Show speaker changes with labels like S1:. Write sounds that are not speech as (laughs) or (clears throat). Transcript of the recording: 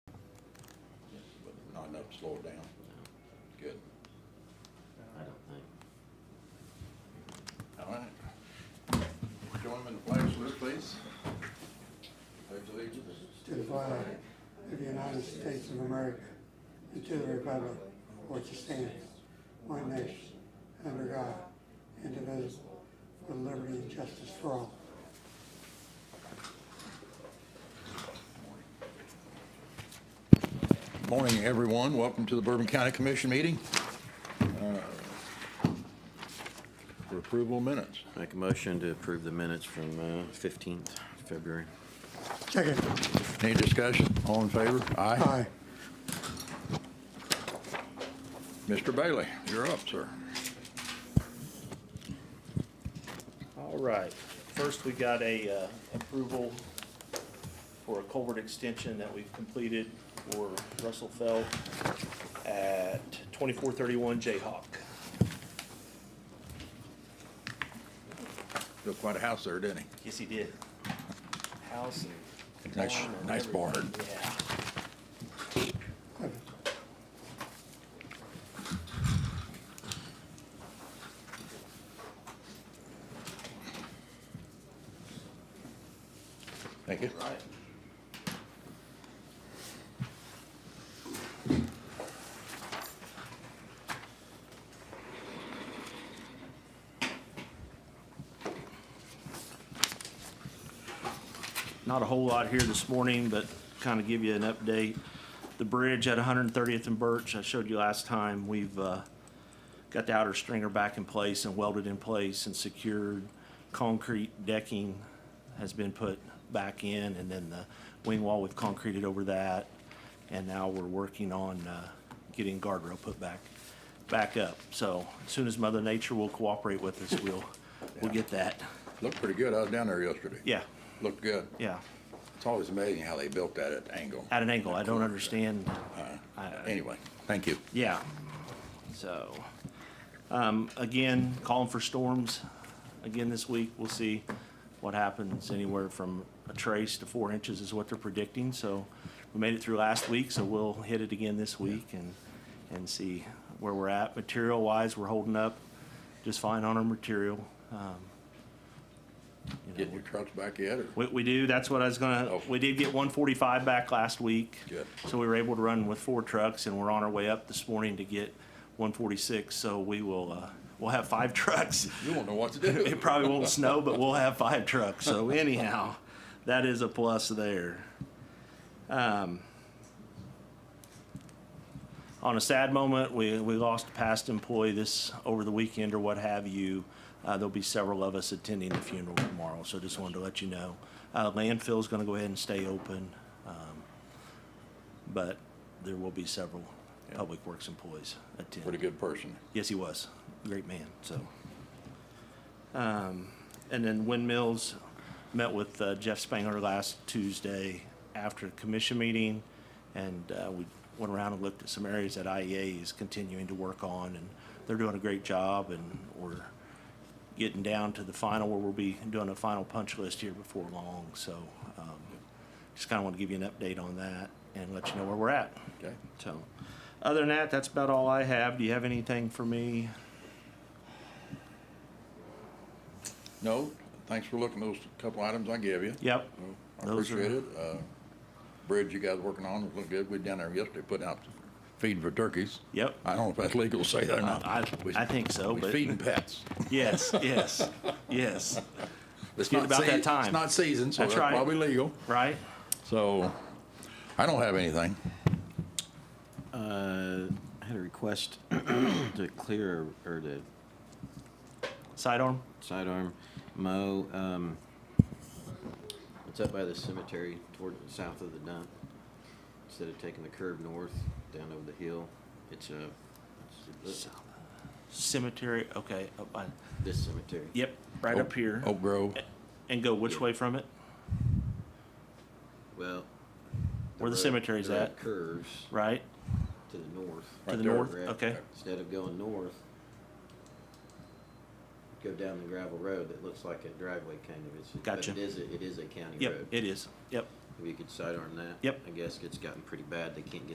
S1: slow it down?
S2: No,
S1: Good.
S2: I don't think.
S1: All right. Join me in the pledge, list, please. Pledge allegiance.
S3: to the flag of the United States of America and to the republic for which it stands, one nation, under God, indivisible, with liberty and justice for all.
S1: Morning, everyone. Welcome to the Bourbon County Commission meeting. Uh, For approval of minutes.
S2: Make a motion to approve the minutes from uh, 15th February.
S3: Second.
S1: Any discussion? All in favor?
S3: Aye.
S1: Mr. Bailey, you're up, sir.
S4: All right, first we got a uh, approval for a culvert extension that we've completed for Russell Feld at twenty-four thirty-one Jayhawk.
S1: Built quite a house there, didn't he?
S4: Yes, he did. House and.
S1: Nice-
S4: barn and
S1: nice barn.
S4: everything, Yeah.
S3: Clifford.
S1: Thank you.
S4: Right. Not a whole lot here this morning, but kind of give you an update. The bridge at 130th and Birch, I showed you last time, we've, uh, got the outer stringer back in place and welded in place and secured. Concrete decking has been put back in, and then the wing wall, we've concreted over that. And now we're working on uh, getting guardrail put back, back up. So as soon as Mother Nature will cooperate with us, we'll, we'll get that.
S1: Looked pretty good. I was down there yesterday.
S4: Yeah,
S1: Looked good.
S4: yeah,
S1: It's always amazing how they built that at angle.
S4: at an angle. I don't understand. I-
S1: Anyway, thank you.
S4: Yeah. So, um, again, calling for storms again this week. We'll see what happens. Anywhere from a trace to four inches is what they're predicting. So we made it through last week, so we'll hit it again this week and, and see where we're at. Material wise, we're holding up just fine on our material. Um, you know,
S1: Getting your trucks back yet, or?
S4: we, we do, that's what I was gonna,
S1: Oh.
S4: we did get one forty-five back last week.
S1: Good.
S4: So we were able to run with four trucks and we're on our way up this morning to get one forty-six, so we will, uh, we'll have five (laughs) trucks.
S1: You won't know what to do.
S4: (laughs) It probably won't snow, but we'll have five trucks, so anyhow, that is a plus there. Um, on a sad moment, we, we lost a past employee this, over the weekend or what have you. Uh, there'll be several of us attending the funeral tomorrow, so just wanted to let you know. Uh, landfill's gonna go ahead and stay open, um, but there will be several public works employees attending.
S1: Pretty good person.
S4: Yes, he was. Great man, so. Um, and then Windmills met with uh, Jeff Spangler last Tuesday after the commission meeting. And, uh, we went around and looked at some areas that IEA is continuing to work on and they're doing a great job and we're getting down to the final where we'll be doing a final punch list here before long, so, um, just kinda wanna give you an update on that and let you know where we're at.
S1: Okay.
S4: So, other than that, that's about all I have. Do you have anything for me?
S1: No, thanks for looking at those couple items I gave you.
S4: Yep.
S1: I
S4: Those are-
S1: appreciate it. Uh, Bridge you guys working on, it looked good. We down there yesterday putting out feeding for turkeys.
S4: Yep.
S1: I don't know if that's legal to say that or not.
S4: I,
S1: We-
S4: I think so,
S1: we
S4: but
S1: feeding
S4: (laughs)
S1: pets.
S4: yes, yes, yes.
S1: It's
S4: get
S1: not
S4: about that
S1: sea- It's
S4: time.
S1: not season, so
S4: That's
S1: that's
S4: right.
S1: probably legal.
S4: Right?
S1: So I don't have anything.
S2: Uh, I had a request (clears throat) to clear, or to
S4: Sidearm?
S2: sidearm mow, um, it's up by the cemetery toward, south of the dump. Instead of taking the curve north, down over the hill, it's a, it's
S4: Cemetery. Okay. Up by,
S2: this cemetery.
S4: yep. Right
S1: Oak-
S4: up here.
S1: Oak Grove.
S4: And go which way from it?
S2: Well.
S4: Where
S2: road-
S4: the cemetery's
S2: road
S4: at.
S2: Curves
S4: Right?
S2: to the north.
S4: To
S1: Right
S4: the
S1: there.
S4: north?
S2: Correct.
S4: Okay.
S2: Instead of going north, go down the gravel road that looks like a driveway kind of, it's, but
S4: Gotcha.
S2: it is, a- it is a county
S4: Yep.
S2: road.
S4: It is. Yep.
S2: If you could sidearm that.
S4: Yep.
S2: I guess it's gotten pretty bad, they can't get